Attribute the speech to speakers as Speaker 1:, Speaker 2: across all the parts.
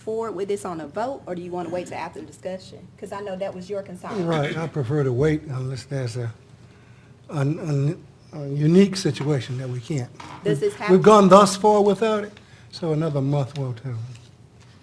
Speaker 1: forward with this on a vote, or do you want to wait till after the discussion? Because I know that was your concern.
Speaker 2: Right, I prefer to wait unless there's a, an- an- a unique situation that we can't.
Speaker 1: Does this have?
Speaker 2: We've gone thus far without it, so another month will tell.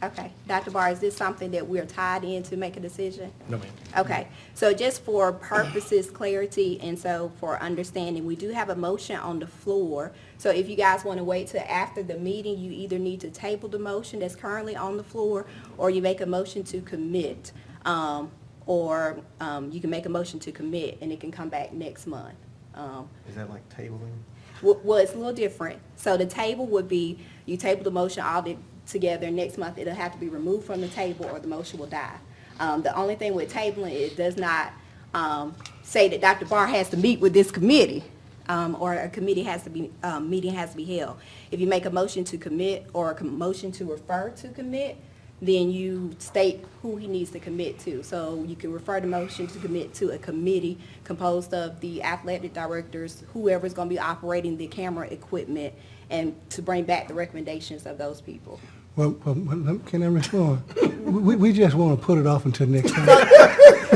Speaker 1: Okay, Dr. Barr, is this something that we're tied in to make a decision?
Speaker 3: No, ma'am.
Speaker 1: Okay, so just for purposes clarity and so for understanding, we do have a motion on the floor. So if you guys want to wait till after the meeting, you either need to table the motion that's currently on the floor or you make a motion to commit. Um, or, um, you can make a motion to commit and it can come back next month. Um,
Speaker 3: Is that like tabling?
Speaker 1: well, well, it's a little different. So the table would be, you table the motion all the- together, next month it'll have to be removed from the table or the motion will die. Um, the only thing with tabling, it does not, um, say that Dr. Barr has to meet with this committee, um, or a committee has to be, um, meeting has to be held. If you make a motion to commit or a com- motion to refer to commit, then you state who he needs to commit to. So you can refer the motion to commit to a committee composed of the athletic directors, whoever's going to be operating the camera equipment, and to bring back the recommendations of those people.
Speaker 2: Well, well, well, can I respond? We, we- we just want to put it off until next time.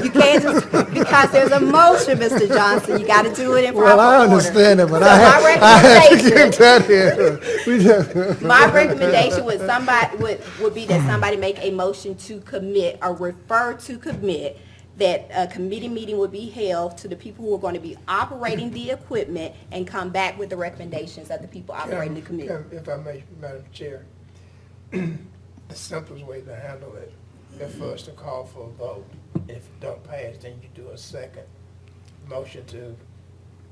Speaker 1: You can't just, because there's a motion, Mr. Johnson, you got to do it in proper order.
Speaker 2: Well, I understand it, but I
Speaker 1: So my
Speaker 2: have, I have to
Speaker 1: recommendation-
Speaker 2: get that in. We just,
Speaker 1: My recommendation would somebody, would, would be that somebody make a motion to commit or refer to commit that a committee meeting would be held to the people who are going to be operating the equipment and come back with the recommendations of the people operating the committee.
Speaker 4: If- If I may, Madam Chair, the simplest way to handle it, is for us to call for a vote. If it don't pass, then you do a second motion to,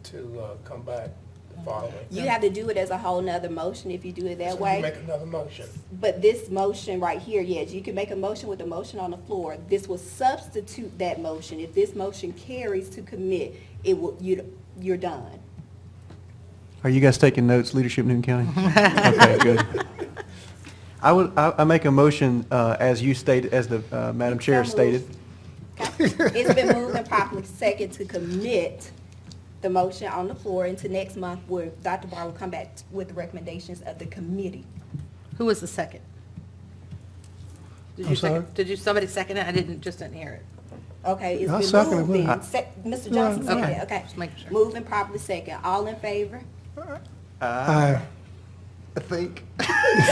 Speaker 4: to uh, come back the following.
Speaker 1: You have to do it as a whole nother motion if you do it
Speaker 4: So
Speaker 1: that
Speaker 4: you Make
Speaker 1: way.
Speaker 4: another motion.
Speaker 1: But this motion right here, yes, you can make a motion with the motion on the floor. This will substitute that motion. If this motion carries to commit, it will, you, you're done.
Speaker 5: Are you guys taking notes, leadership in Newton County? Okay, good. I would, I, I make a motion, uh, as you stated, as the, uh, Madam Chair
Speaker 1: So
Speaker 5: stated.
Speaker 1: moved. Okay. It's been moved and properly second to commit the motion on the floor into next month where Dr. Barr will come back with the recommendations of the committee.
Speaker 6: Who was the second? Did you
Speaker 2: I'm
Speaker 6: second-
Speaker 2: sorry?
Speaker 6: Did you, somebody second it? I didn't, just didn't hear it.
Speaker 1: Okay,
Speaker 2: I'll
Speaker 1: it's
Speaker 2: second
Speaker 1: been
Speaker 2: it,
Speaker 1: moved
Speaker 2: wouldn't I?
Speaker 1: then. Sec- Mr. Johnson
Speaker 6: Okay.
Speaker 1: said, okay.
Speaker 6: Just making sure.
Speaker 1: Moved and properly second. All in favor?
Speaker 2: I,
Speaker 5: I think.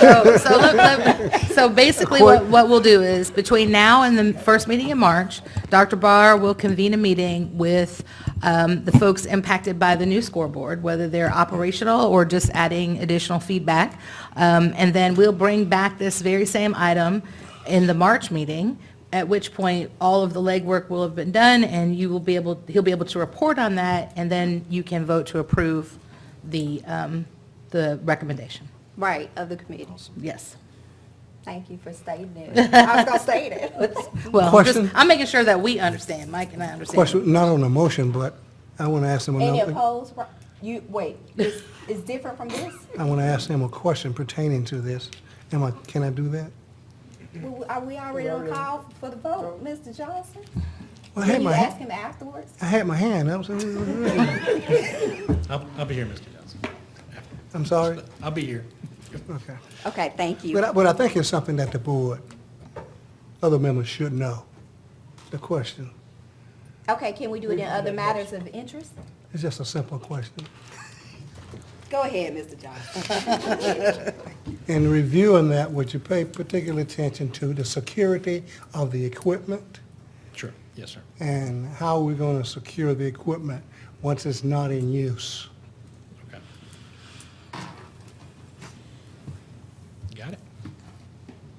Speaker 6: So, so look, look, so basically what, what we'll do is between now and the first meeting in March, Dr. Barr will convene a meeting with um, the folks impacted by the new scoreboard, whether they're operational or just adding additional feedback. Um, And then we'll bring back this very same item in the March meeting, at which point all of the legwork will have been done and you will be able, he'll be able to report on that and then you can vote to approve the, um, the recommendation.
Speaker 1: Right, of the committee.
Speaker 6: Yes.
Speaker 1: Thank you for stating it. I was gonna say that.
Speaker 6: Well, I'm just,
Speaker 2: Question?
Speaker 6: I'm making sure that we understand, Mike and I understand.
Speaker 2: question, not on the motion, but I want to ask them
Speaker 1: Any
Speaker 2: another,
Speaker 1: opposed? You, wait, it's, it's different from this?
Speaker 2: I want to ask them a question pertaining to this. Am I, can I do that?
Speaker 1: Well, Are we already on call for the vote, Mr. Johnson?
Speaker 2: Well, I had
Speaker 1: Can you
Speaker 2: my,
Speaker 1: ask
Speaker 2: ha-
Speaker 1: him afterwards?
Speaker 2: I had my hand up, so,
Speaker 3: I'll, I'll be here, Mr. Johnson.
Speaker 2: I'm sorry,
Speaker 3: I'll be here.
Speaker 2: okay.
Speaker 1: Okay, thank you.
Speaker 2: But I, but I think it's something that the board, other members should know, the question.
Speaker 1: Okay, can we do it in other matters of interest?
Speaker 2: It's just a simple question.
Speaker 1: Go ahead, Mr. Johnson.
Speaker 2: In reviewing that, would you pay particular attention to the security of the equipment
Speaker 3: Sure, yes, sir.
Speaker 2: and how we're going to secure the equipment once it's not in use?
Speaker 3: Okay. Got it?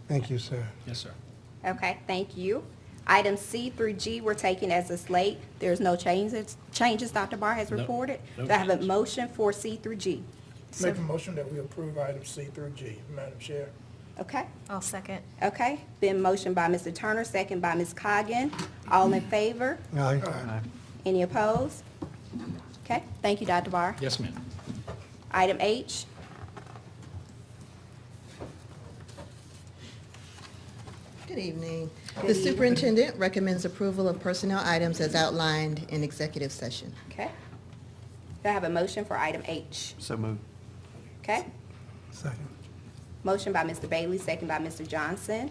Speaker 2: Thank you, sir.
Speaker 3: Yes, sir.
Speaker 1: Okay, thank you. Item C through G were taken as a slate. There's no changes, changes Dr. Barr has
Speaker 3: No,
Speaker 1: reported.
Speaker 3: no
Speaker 1: Do I have a
Speaker 3: changes.
Speaker 1: motion for C through G?
Speaker 4: Make a motion that we approve items C through G, Madam Chair.
Speaker 1: Okay,
Speaker 7: I'll second.
Speaker 1: okay. Been motion by Mr. Turner, second by Ms. Coggan. All in favor?
Speaker 2: Aye.
Speaker 1: Any opposed? Okay, thank you, Dr. Barr.
Speaker 3: Yes, ma'am.
Speaker 1: Item H,
Speaker 8: Good evening.
Speaker 1: Good
Speaker 8: The superintendent recommends approval of personnel items as outlined in executive session.
Speaker 1: okay. Do I have a motion for item H?
Speaker 5: So moved.
Speaker 1: Okay.
Speaker 2: Second.
Speaker 1: Motion by Mr. Bailey, second by Mr. Johnson.